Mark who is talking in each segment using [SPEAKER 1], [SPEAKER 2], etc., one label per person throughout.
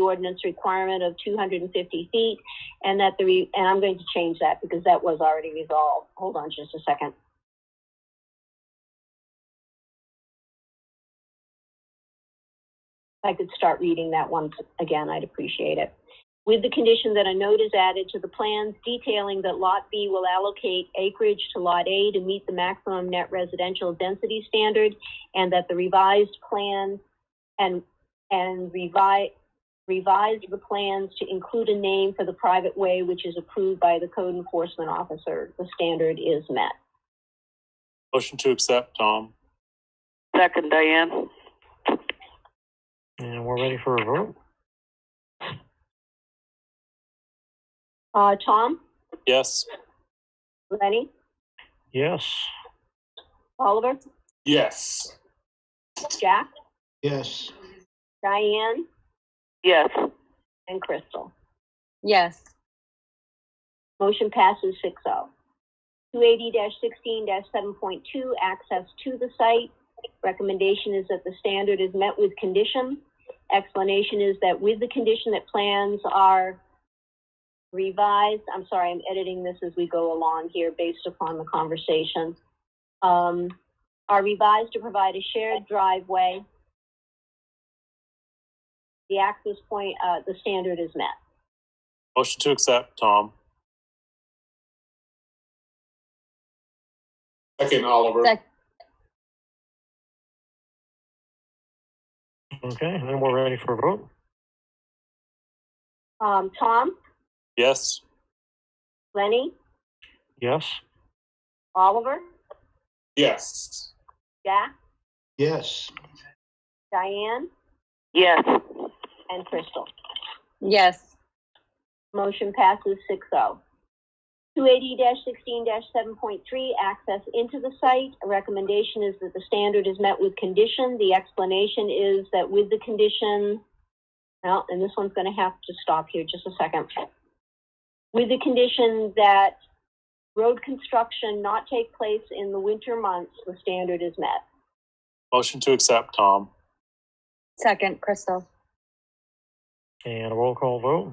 [SPEAKER 1] ordinance requirement of two hundred and fifty feet, and that the, re- and I'm going to change that because that was already resolved. Hold on just a second. If I could start reading that once again, I'd appreciate it. With the condition that a note is added to the plans detailing that Lot B will allocate acreage to Lot A to meet the maximum net residential density standard, and that the revised plan and, and revi revised the plans to include a name for the private way which is approved by the code enforcement officer. The standard is met.
[SPEAKER 2] Motion to accept, Tom.
[SPEAKER 3] Second, Diane.
[SPEAKER 4] And we're ready for a vote?
[SPEAKER 1] Uh, Tom,
[SPEAKER 2] Yes.
[SPEAKER 1] Lenny,
[SPEAKER 4] Yes.
[SPEAKER 1] Oliver,
[SPEAKER 2] Yes.
[SPEAKER 1] Jack,
[SPEAKER 4] Yes.
[SPEAKER 1] Diane,
[SPEAKER 3] Yes.
[SPEAKER 1] and Crystal.
[SPEAKER 5] yes,
[SPEAKER 1] Motion passes six oh. Two eighty sixteen seven point two, access to the site. Recommendation is that the standard is met with condition. Explanation is that with the condition that plans are revised, I'm sorry, I'm editing this as we go along here based upon the conversation. Um, are revised to provide a shared driveway. The access point, uh, the standard is met.
[SPEAKER 2] Motion to accept, Tom. Second, Oliver.
[SPEAKER 5] Sec-
[SPEAKER 4] Okay, and then we're ready for a vote?
[SPEAKER 1] Um, Tom,
[SPEAKER 2] Yes.
[SPEAKER 1] Lenny,
[SPEAKER 4] Yes.
[SPEAKER 1] Oliver?
[SPEAKER 2] Yes.
[SPEAKER 1] Jack,
[SPEAKER 4] Yes.
[SPEAKER 1] Diane,
[SPEAKER 3] Yes.
[SPEAKER 1] and Crystal.
[SPEAKER 5] yes,
[SPEAKER 1] Motion passes 6-0. Two eighty sixteen seven point three, access into the site. A recommendation is that the standard is met with condition. The explanation is that with the condition, well, and this one's gonna have to stop here just a second. With the condition that road construction not take place in the winter months, the standard is met.
[SPEAKER 2] Motion to accept, Tom.
[SPEAKER 5] second, Crystal,
[SPEAKER 4] And a roll call vote?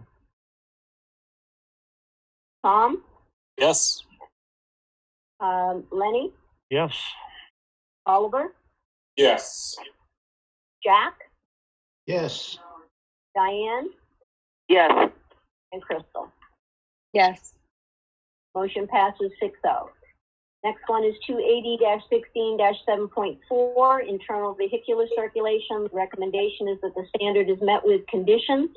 [SPEAKER 1] Tom,
[SPEAKER 2] Yes.
[SPEAKER 1] um, Lenny,
[SPEAKER 4] Yes.
[SPEAKER 1] Oliver,
[SPEAKER 2] Yes.
[SPEAKER 1] Jack,
[SPEAKER 4] Yes.
[SPEAKER 1] Diane,
[SPEAKER 3] Yes.
[SPEAKER 1] and Crystal.
[SPEAKER 5] yes,
[SPEAKER 1] Motion passes 6-0. Next one is two eighty sixteen seven point four, internal vehicular circulation. Recommendation is that the standard is met with condition.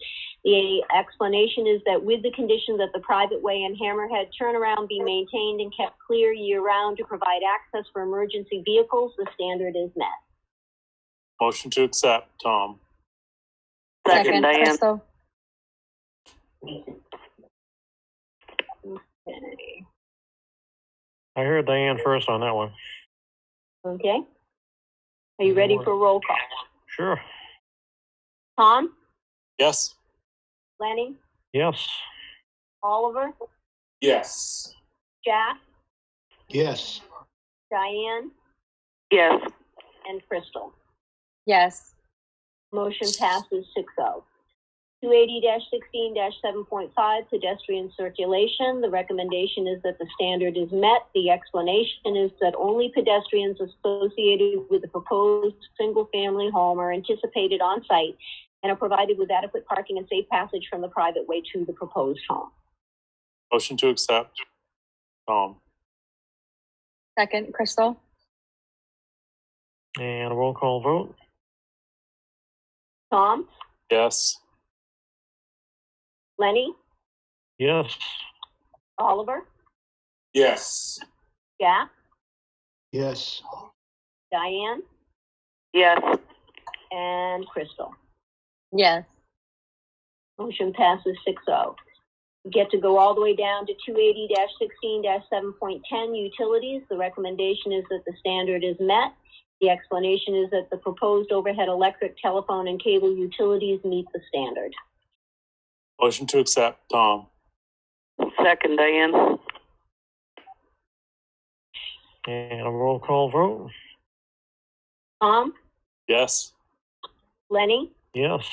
[SPEAKER 1] The explanation is that with the condition that the private way and hammerhead turnaround be maintained and kept clear year-round to provide access for emergency vehicles, the standard is met.
[SPEAKER 2] Motion to accept, Tom.
[SPEAKER 3] Second,
[SPEAKER 5] second,
[SPEAKER 3] Diane.
[SPEAKER 5] Crystal,
[SPEAKER 1] Okay.
[SPEAKER 4] I heard Diane first on that one.
[SPEAKER 1] Okay? Are you ready for roll call?
[SPEAKER 4] Sure.
[SPEAKER 1] Tom,
[SPEAKER 2] Yes.
[SPEAKER 1] Lenny,
[SPEAKER 4] Yes.
[SPEAKER 1] Oliver,
[SPEAKER 2] Yes.
[SPEAKER 1] Jack,
[SPEAKER 4] Yes.
[SPEAKER 1] Diane,
[SPEAKER 3] Yes.
[SPEAKER 1] and Crystal.
[SPEAKER 5] yes,
[SPEAKER 1] Motion passes six oh. Two eighty sixteen seven point five, pedestrian circulation. The recommendation is that the standard is met. The explanation is that only pedestrians associated with the proposed single-family home are anticipated on site and are provided with adequate parking and safe passage from the private way to the proposed home.
[SPEAKER 2] Motion to accept, Tom.
[SPEAKER 5] second, Crystal,
[SPEAKER 4] And a roll call vote?
[SPEAKER 1] Tom,
[SPEAKER 2] Yes.
[SPEAKER 1] Lenny,
[SPEAKER 4] Yes.
[SPEAKER 1] Oliver,
[SPEAKER 2] Yes.
[SPEAKER 1] Jack,
[SPEAKER 4] Yes.
[SPEAKER 1] Diane,
[SPEAKER 3] Yes.
[SPEAKER 1] and Crystal.
[SPEAKER 5] yes,
[SPEAKER 1] Motion passes six oh. We get to go all the way down to two eighty sixteen seven point ten, utilities. The recommendation is that the standard is met. The explanation is that the proposed overhead electric, telephone, and cable utilities meet the standard.
[SPEAKER 2] Motion to accept, Tom.
[SPEAKER 3] Second, Diane.
[SPEAKER 4] And a roll call vote?
[SPEAKER 1] Tom,
[SPEAKER 2] Yes.
[SPEAKER 1] Lenny,
[SPEAKER 4] Yes.